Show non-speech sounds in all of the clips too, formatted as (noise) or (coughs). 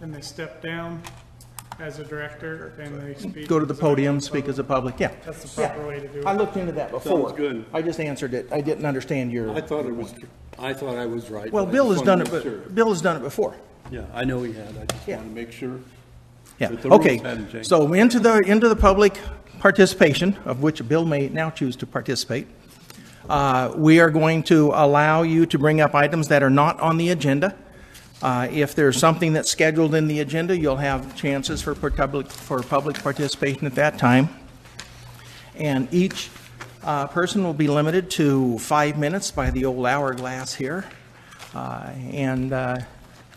and they step down as a director and they speak. Go to the as a member podium, of the speak as public. a public, yeah. That's the proper way to do I it. looked into that before. Sounds good. I just answered it. I didn't understand I your, thought it was, I thought I was right. well, but I Bill has just done wanted it, to make sure. but Bill has done it before. Yeah, I know he had, I just Yeah. wanted to make sure. Yeah, But the rules hadn't okay. changed. So into the, into the public participation, of which Bill may now choose to participate. Uh, We are going to allow you to bring up items that are not on the agenda. Uh, If there's something that's scheduled in the agenda, you'll have chances for per- public, for public participation at that time. And each uh, person will be limited to five minutes by the old hourglass here. Uh, And uh,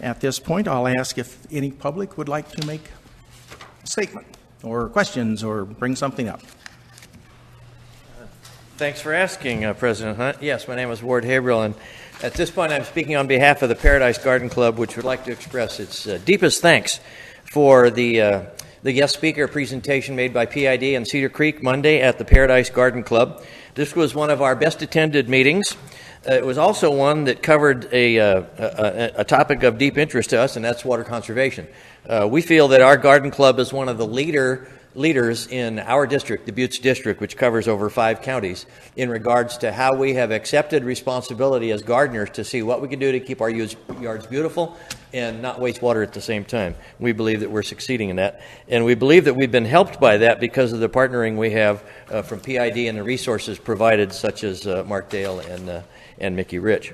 at this point, I'll ask if any public would like to make a statement, or questions, or bring something up. Thanks for asking, uh, President Hunt. Yes, my name is Ward Haverhill, and at this point, I'm speaking on behalf of the Paradise Garden Club, which would like to express its uh, deepest thanks for the, uh, the guest speaker presentation made by PID in Cedar Creek Monday at the Paradise Garden Club. This was one of our best attended meetings. Uh, It was also one that covered a, uh, a, a- a topic of deep interest to us, and that's water conservation. Uh, we feel that our garden club is one of the leader, leaders in our district, the Buttes District, which covers over five counties, in regards to how we have accepted responsibility as gardeners to see what we can do to keep our yards yards beautiful and not waste water at the same time. We believe that we're succeeding in that. And we believe that we've been helped by that because of the partnering we have uh, from PID and the resources provided, such as uh, Mark Dale and, uh, and Mickey Rich.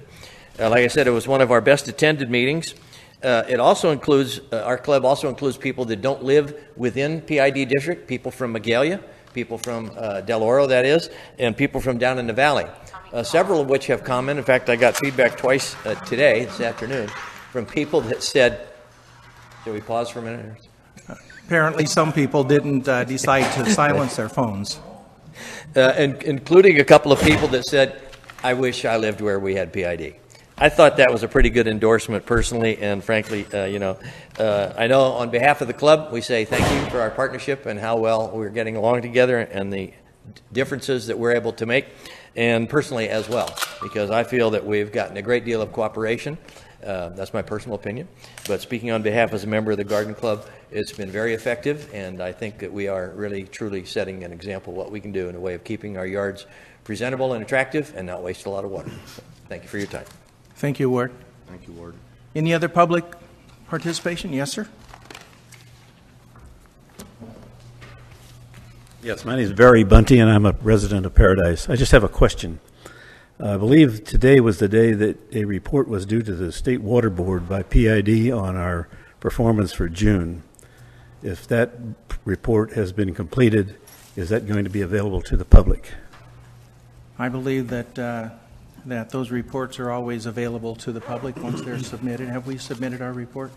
Uh, like I said, it was one of our best attended meetings. Uh, it also includes, uh, our club also includes people that don't live within PID district, people from Magalia, people from uh, Del Oro, that is, and people from down in the valley, uh, several of which have commented. In fact, I got feedback twice uh, today, this afternoon, from people that said, should we pause for a minute? Apparently, some people didn't uh, decide to silence their phones. Uh, and, including a couple of people that said, I wish I lived where we had PID. I thought that was a pretty good endorsement personally, and frankly, uh, you know, uh, I know on behalf of the club, we say thank you for our partnership and how well we're getting along together and the differences that we're able to make, and personally as well, because I feel that we've gotten a great deal of cooperation. Uh, that's my personal opinion. But speaking on behalf as a member of the Garden Club, it's been very effective, and I think that we are really, truly setting an example of what we can do in a way of keeping our yards presentable and attractive and not waste a lot of water. So, Thank you for your time. Thank you, Ward. Thank you, Ward. Any other public participation? Yes, sir? Yes, my name is Barry Bunty, and I'm a resident of Paradise. I just have a question. I believe today was the day that a report was due to the State Water Board by PID on our performance for June. If that report has been completed, is that going to be available to the public? I believe that, uh, that those reports are always available to the public once they're submitted. Have we submitted our report?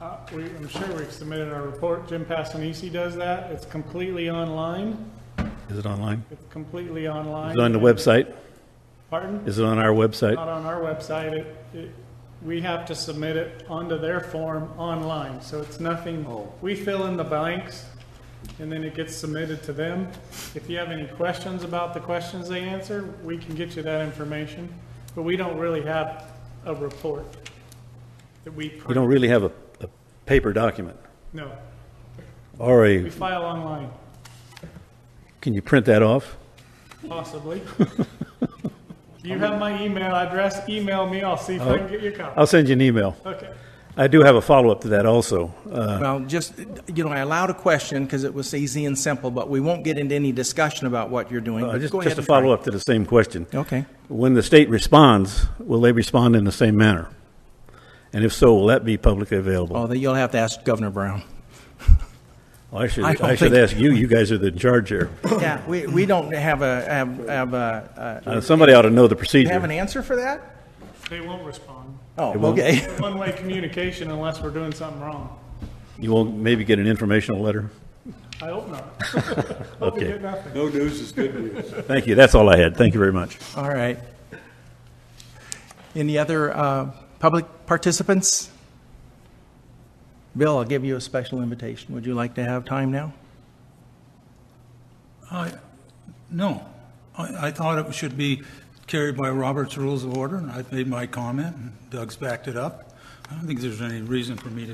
Uh, we, I'm sure we've submitted our report. Jim Passanisi does that. It's completely online. Is it online? It's completely online. Is it on the website? Pardon? Is it on our website? Not on our website. It, it, we have to submit it onto their form online, so it's nothing, Oh. we fill in the blanks, and then it gets submitted to them. If you have any questions about the questions they answer, we can get you that information, but we don't really have a report that we. We don't really have a, a paper document, No, or we a, file online, can you print that off? (laughs) possibly. You have my email address, email me, I'll see if I can get your copy. I'll send you an email. Okay. I do have a follow-up to that also. Uh, Well, just, you know, I allowed a question because it was easy and simple, but we won't get into any discussion about what you're doing. Uh, but Just, go just ahead to and try. follow up to the same question. Okay. When the state responds, will they respond in the same manner? And if so, will that be publicly available? Oh, then you'll have to ask Governor (coughs) Brown. I should, I don't I should think- ask you, you guys are the (laughs) charge here. Yeah, we, we don't have a, have, have a, uh, Uh, Somebody ought to know the do you have an procedure. answer for that? They won't respond. Oh, won't. (laughs) okay. One-way communication unless we're doing something wrong. You will maybe get an informational letter? I hope not. (laughs) Hope we Okay. get nothing. No news is good news. Thank you, that's all I had, thank you very much. All right. Any other uh, public participants? Bill, I'll give you a special invitation. Would you like to have time now? I, no. I, I thought it should be carried by Robert's Rules of Order, and I made my comment, and Doug's backed it up. I don't think there's any reason for me to